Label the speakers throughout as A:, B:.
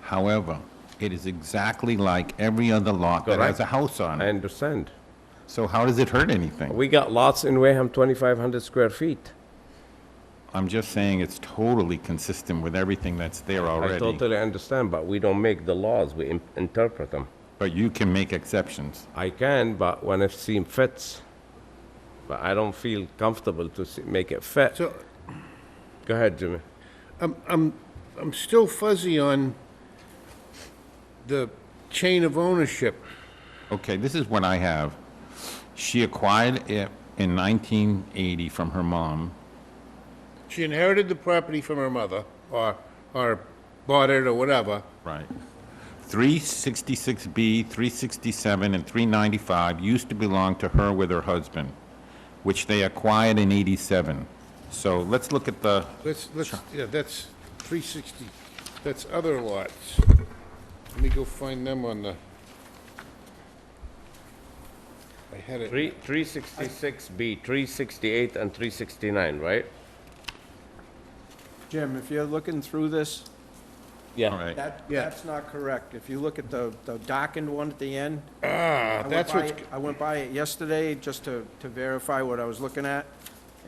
A: However, it is exactly like every other lot that has
B: Correct.
A: a house on
B: I
A: it.
B: understand.
A: So how does it hurt anything?
B: We got lots in Wareham, 2,500 square feet.
A: I'm just saying it's totally consistent with everything that's there
B: I
A: already.
B: totally understand, but we don't make the laws, we im- interpret them.
A: But you can make exceptions.
B: I can, but when it seems fits. But I don't feel comfortable to se- make it fit.
C: So,
B: Go ahead, Jimmy.
C: I'm, I'm, I'm still fuzzy on the chain of ownership.
A: Okay, this is what I have. She acquired it in 1980 from her mom.
C: She inherited the property from her mother, or, or bought it, or whatever.
A: Right. 366B, 367, and 395 used to belong to her with her husband, which they acquired in 87. So let's look at the,
C: Let's, let's, yeah, that's 360, that's other lots. Let me go find them on the... I had it,
B: 366B, 368, and 369, right?
D: Jim, if you're looking through this,
A: all
B: Yeah.
A: right.
D: that,
C: Yeah.
D: that's not correct. If you look at the, the darkened one at the end.
C: ah,
D: I went
C: that's
D: by
C: what's,
D: it- I went by it yesterday just to, to verify what I was looking at.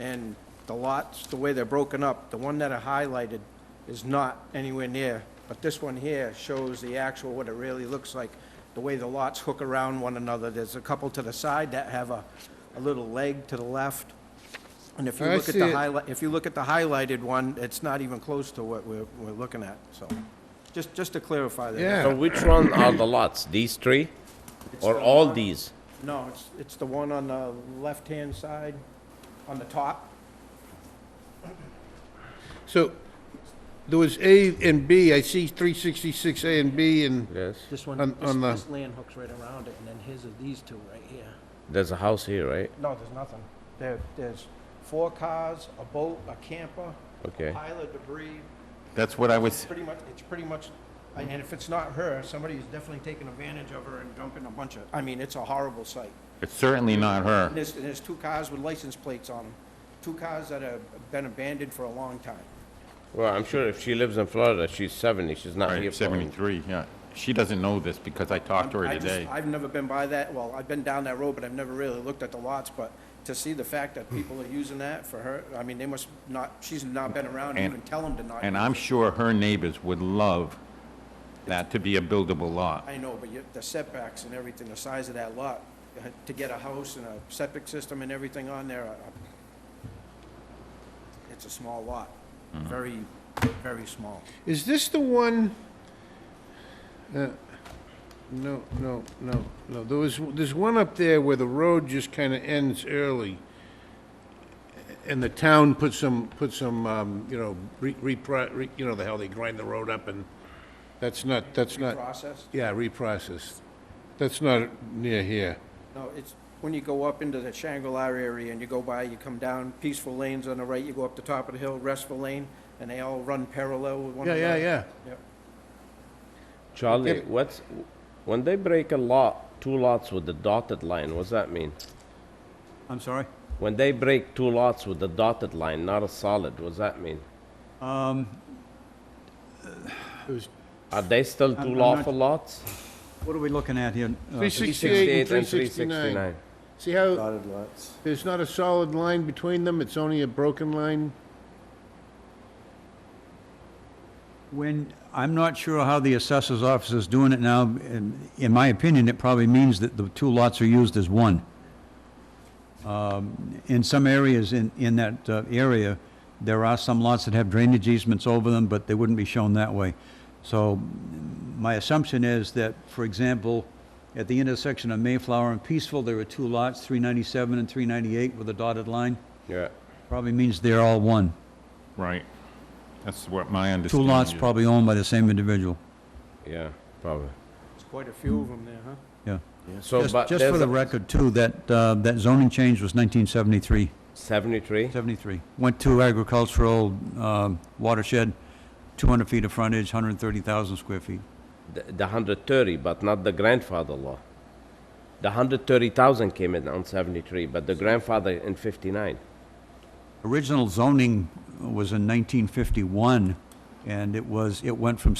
D: And the lots, the way they're broken up, the one that I highlighted is not anywhere near. But this one here shows the actual, what it really looks like, the way the lots hook around one another. There's a couple to the side that have a, a little leg to the left. And if you
C: I
D: look at
C: see
D: the
C: it.
D: highlight, if you look at the highlighted one, it's not even close to what we're, we're looking at, so. Just, just to clarify that.
B: So
C: yeah,
B: which one are the lots? These three? Or all these?
D: No, it's, it's the one on the left-hand side, on the top.
C: so, there was A and B, I see 366A and B, and
B: Yes.
E: This
C: On-
E: one, this,
C: on the-
E: this land hooks right around it, and then his are these two right here.
B: There's a house here, right?
D: No, there's nothing. There, there's four cars, a boat, a camper, a
B: Okay.
D: pile of debris,
A: That's what I was,
D: pretty much, it's pretty much, and if it's not her, somebody's definitely taking advantage of her and dumping a bunch of, I mean, it's a horrible sight.
A: it's certainly not
D: And
A: her.
D: there's, and there's two cars with license plates on them, two cars that have been abandoned for a long time.
B: Well, I'm sure if she lives in Florida, she's 70, she's not here
A: Right,
B: for...
A: 73, yeah. She doesn't know this because I talked to
D: I
A: her
D: just-
A: today.
D: I've never been by that, well, I've been down that road, but I've never really looked at the lots, but to see the fact that people are using that for her, I mean, they must not, she's not been around to
A: And-
D: even tell them to not.
A: And
D: use
A: I'm
D: it.
A: sure her neighbors would love that to be a buildable lot.
D: I know, but you, the setbacks and everything, the size of that lot, uh, to get a house and a septic system and everything on there, uh, it's a small lot,
A: Mm-hmm.
D: very, very small.
C: Is this the one? uh, No, no, no, no. There was, there's one up there where the road just kind of ends early. And the town put some, put some, um, you know, re, repro- re, you know, the hell, they grind the road up and that's not, that's not,
D: Process,
C: yeah, reprocessed. That's not near here.
D: No, it's, when you go up into the Shangri-La area and you go by, you come down Peaceful Lanes on the right, you go up the top of the hill, Restful Lane, and they all run parallel with one
C: Yeah,
D: another.
C: yeah, yeah.
D: Yep.
B: Charlie,
C: Yep.
B: what's, when they break a lot, two lots with the dotted line, what's that mean?
F: I'm sorry?
B: When they break two lots with the dotted line, not a solid, what's that mean? Are they still
F: I'm-
B: two
F: I'm not-
B: lawful lots?
F: What are we looking at here? Uh,
C: 368 and 369.
B: 369.
C: See how, there's not a solid line between them, it's only a broken line?
F: When, I'm not sure how the assessor's office is doing it now. In in my opinion, it probably means that the two lots are used as one. Um, In some areas in, in that uh, area, there are some lots that have drainage easements over them, but they wouldn't be shown that way. So mm, my assumption is that, for example, at the intersection of Mayflower and Peaceful, there are two lots, 397 and 398 with a dotted line.
B: Yeah.
F: Probably means they're all one.
A: Right. That's what my
F: Two
A: understanding
F: lots
A: is.
F: probably owned by the same individual,
B: Yeah, probably.
D: There's quite a few of them there, huh?
F: yeah.
B: So,
F: Just-
B: but
F: Just for
B: there's
F: the
B: a
F: record, too, that, uh, that zoning change was 1973,
B: 73?
F: 73. Went to agricultural um, watershed, 200 feet of frontage, 130,000 square feet.
B: The the 130, but not the grandfather law. The 130,000 came in on 73, but the grandfather in 59.
F: Original zoning was in 1951, and it was, it went from